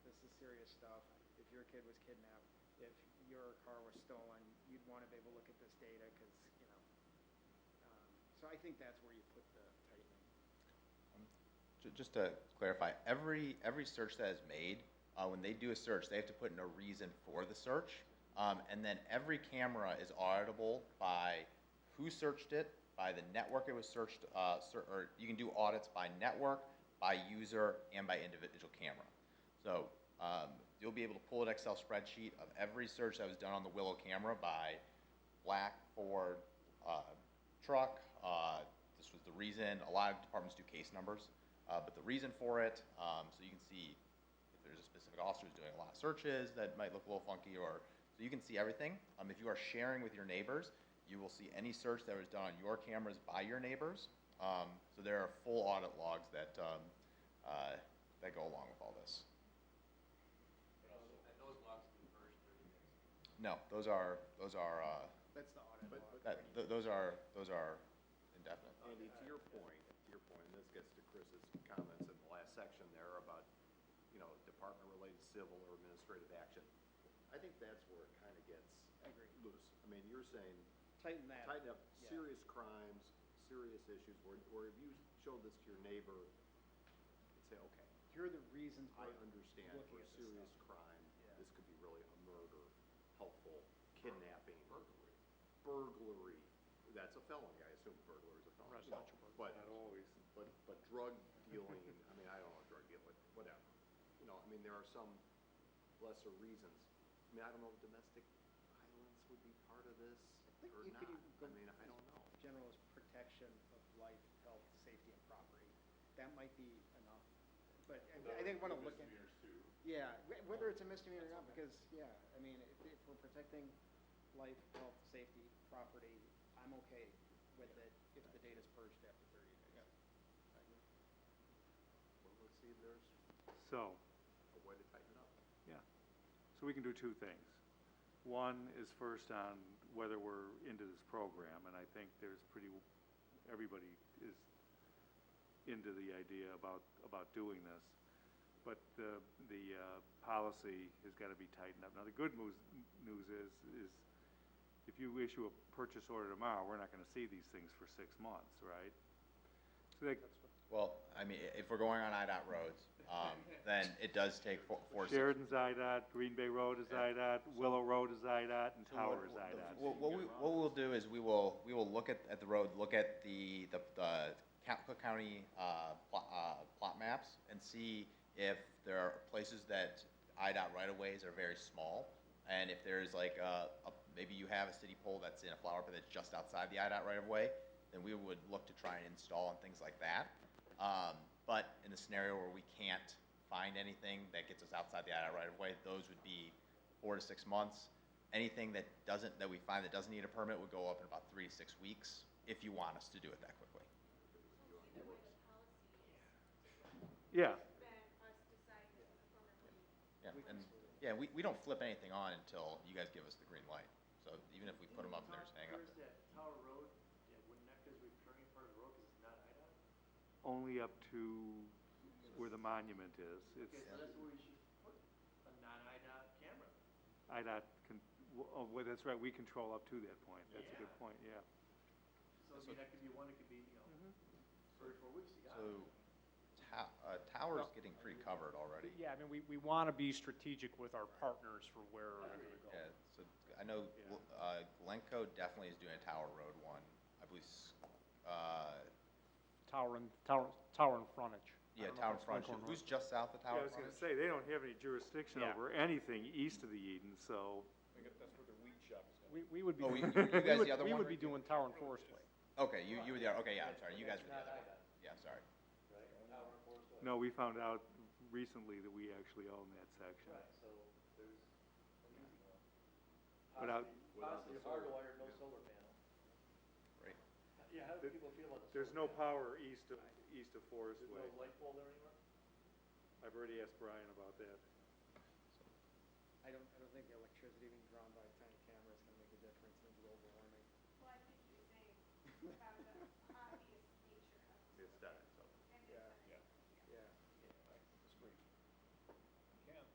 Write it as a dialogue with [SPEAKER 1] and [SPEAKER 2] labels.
[SPEAKER 1] stuff, if your kid was kidnapped, if your car was stolen, you'd want to be able to look at this data because, you know. um, So I think that's where you put the tightening.
[SPEAKER 2] Ju- Just to clarify, every, every search that is made, uh, when they do a search, they have to put in a reason for the search. Um, and then every camera is auditable by who searched it, by the network it was searched, uh, ser- or you can do audits by network, by user, and by individual camera. So, um, you'll be able to pull an Excel spreadsheet of every search that was done on the Willow camera by black Ford, uh, truck, uh, this was the reason, a lot of departments do case numbers, uh, but the reason for it, um, so you can see if there's a specific officer who's doing a lot of searches that might look a little funky, or, so you can see everything. Um, if you are sharing with your neighbors, you will see any search that was done on your cameras by your neighbors. Um, so there are full audit logs that, um, uh, that go along with all this.
[SPEAKER 3] And those logs in the first thirty days.
[SPEAKER 2] No, those are, those are, uh,
[SPEAKER 1] That's the audit log.
[SPEAKER 2] that, th- those are, those are indefinite.
[SPEAKER 4] Andy, to your point, to your point, and this gets to Chris's comments in the last section there about, you know, department-related civil or administrative action. I think that's where it kind of gets
[SPEAKER 1] Agreed.
[SPEAKER 4] loose. I mean, you're saying
[SPEAKER 1] Tighten that.
[SPEAKER 4] tighten up
[SPEAKER 1] Yeah.
[SPEAKER 4] serious crimes, serious issues, where, where if you showed this to your neighbor, you'd say, okay,
[SPEAKER 1] Here are the reasons
[SPEAKER 4] I
[SPEAKER 1] why.
[SPEAKER 4] understand
[SPEAKER 1] Looking
[SPEAKER 4] for a
[SPEAKER 1] at this
[SPEAKER 4] serious
[SPEAKER 1] stuff.
[SPEAKER 4] crime,
[SPEAKER 1] Yeah.
[SPEAKER 4] this could be really a murder, helpful, kidnapping. Burglary. Burglary, that's a felony, I assume burglary is a felony. Residential burglary. But,
[SPEAKER 5] always.
[SPEAKER 4] but, but drug dealing, I mean, I don't know drug dealing, whatever. You know, I mean, there are some lesser reasons. I mean, I don't know if domestic violence would be part of this
[SPEAKER 1] think
[SPEAKER 4] or
[SPEAKER 1] you
[SPEAKER 4] not.
[SPEAKER 1] could even go-
[SPEAKER 4] I mean, I don't know.
[SPEAKER 1] General is protection of life, health, safety, and property. That might be enough, but I- I think want to look at. Yeah, wh- whether it's a misdemeanor or not, because, yeah, I mean, if, if we're protecting life, health, safety, property, I'm okay with it if the data's purged after thirty days.
[SPEAKER 4] Well, let's see if there's
[SPEAKER 5] So,
[SPEAKER 4] a way to tighten it up.
[SPEAKER 5] yeah, so we can do two things. One is first on whether we're into this program, and I think there's pretty, everybody is into the idea about, about doing this. But the, the, uh, policy has gotta be tightened up. Now, the good news, news is, is if you issue a purchase order tomorrow, we're not gonna see these things for six months, right? So that,
[SPEAKER 2] Well, I mean, i- if we're going on IDOT roads, um, then it does take four, four. six-
[SPEAKER 5] Sheridan's IDOT, Green Bay Road is IDOT, Willow Road is IDOT, and Tower is IDOT.
[SPEAKER 2] What, what we, what we'll do is we will, we will look at, at the road, look at the, the, the Ca- Cook County, uh, plot, uh, plot maps and see if there are places that IDOT right-of-ways are very small. And if there's like, uh, a, maybe you have a city pole that's in a flower bed that's just outside the IDOT right-of-way, then we would look to try and install and things like that. Um, but in the scenario where we can't find anything that gets us outside the IDOT right-of-way, those would be four to six months. Anything that doesn't, that we find that doesn't need a permit would go up in about three to six weeks, if you want us to do it that quickly.
[SPEAKER 6] Either way, the policy is,
[SPEAKER 5] Yeah,
[SPEAKER 6] then us deciding if the permit would be
[SPEAKER 2] Yeah, and, yeah, we, we don't flip anything on until you guys give us the green light. So even if we put them up and they're just hanging up
[SPEAKER 3] Where's
[SPEAKER 2] there.
[SPEAKER 3] that Tower Road, that Wood Nectar's returning part of the road, 'cause it's not IDOT?
[SPEAKER 5] only up to where the monument is.
[SPEAKER 3] Okay,
[SPEAKER 5] It's
[SPEAKER 3] so that's where we should put a non-IDOT camera.
[SPEAKER 5] IDOT, con- w- oh, well, that's right, we control up to that point. That's a good
[SPEAKER 3] Yeah.
[SPEAKER 5] point, yeah.
[SPEAKER 3] So, I mean, that could be one, it could be, you know, three or four weeks, you got
[SPEAKER 2] So,
[SPEAKER 3] it.
[SPEAKER 2] ta- uh, tower's getting pretty covered already.
[SPEAKER 7] Yeah, I mean, we, we want to be strategic with our partners for where we're going to go.
[SPEAKER 2] Yeah, so I know,
[SPEAKER 5] Yeah.
[SPEAKER 2] uh, Glencoe definitely is doing a Tower Road one. I believe, s- uh,
[SPEAKER 7] Tower and, tower, tower and frontage. I
[SPEAKER 2] yeah,
[SPEAKER 7] don't know if
[SPEAKER 2] Tower
[SPEAKER 7] it's
[SPEAKER 2] Frontage,
[SPEAKER 7] Glencoe or
[SPEAKER 2] who's just south of
[SPEAKER 5] Yeah, I
[SPEAKER 2] Tower
[SPEAKER 5] was gonna
[SPEAKER 2] Frontage?
[SPEAKER 5] say, they don't have any jurisdiction
[SPEAKER 7] Yeah.
[SPEAKER 5] over anything east of the Eden, so,
[SPEAKER 7] not. We, we would be.
[SPEAKER 2] Oh, we-
[SPEAKER 7] doing-
[SPEAKER 2] you- you
[SPEAKER 7] we
[SPEAKER 2] guys
[SPEAKER 7] would-
[SPEAKER 2] the other
[SPEAKER 7] We
[SPEAKER 2] one
[SPEAKER 7] would
[SPEAKER 2] or
[SPEAKER 7] be
[SPEAKER 2] the-
[SPEAKER 7] doing Tower and Forest Way.
[SPEAKER 2] Okay, you, you were the, other- okay, yeah, I'm sorry, you guys were the other one. Yeah, I'm sorry.
[SPEAKER 5] no, we found out recently that we actually own that section.
[SPEAKER 3] Right, so there's an easy one.
[SPEAKER 5] Without-
[SPEAKER 3] Possibly- Possibly hardwired, no solar panel.
[SPEAKER 2] Great.
[SPEAKER 3] Yeah, how do people feel about the solar?
[SPEAKER 5] There's no
[SPEAKER 3] panel?
[SPEAKER 5] power east of, east of Forest
[SPEAKER 3] There's
[SPEAKER 5] Way.
[SPEAKER 3] no light pole there anymore?
[SPEAKER 5] I've already asked Brian about that.
[SPEAKER 1] I don't, I don't think the electricity being drawn by tiny cameras can make a difference in global warming.
[SPEAKER 6] Well, I think you're saying about the obvious nature of.
[SPEAKER 4] It's done.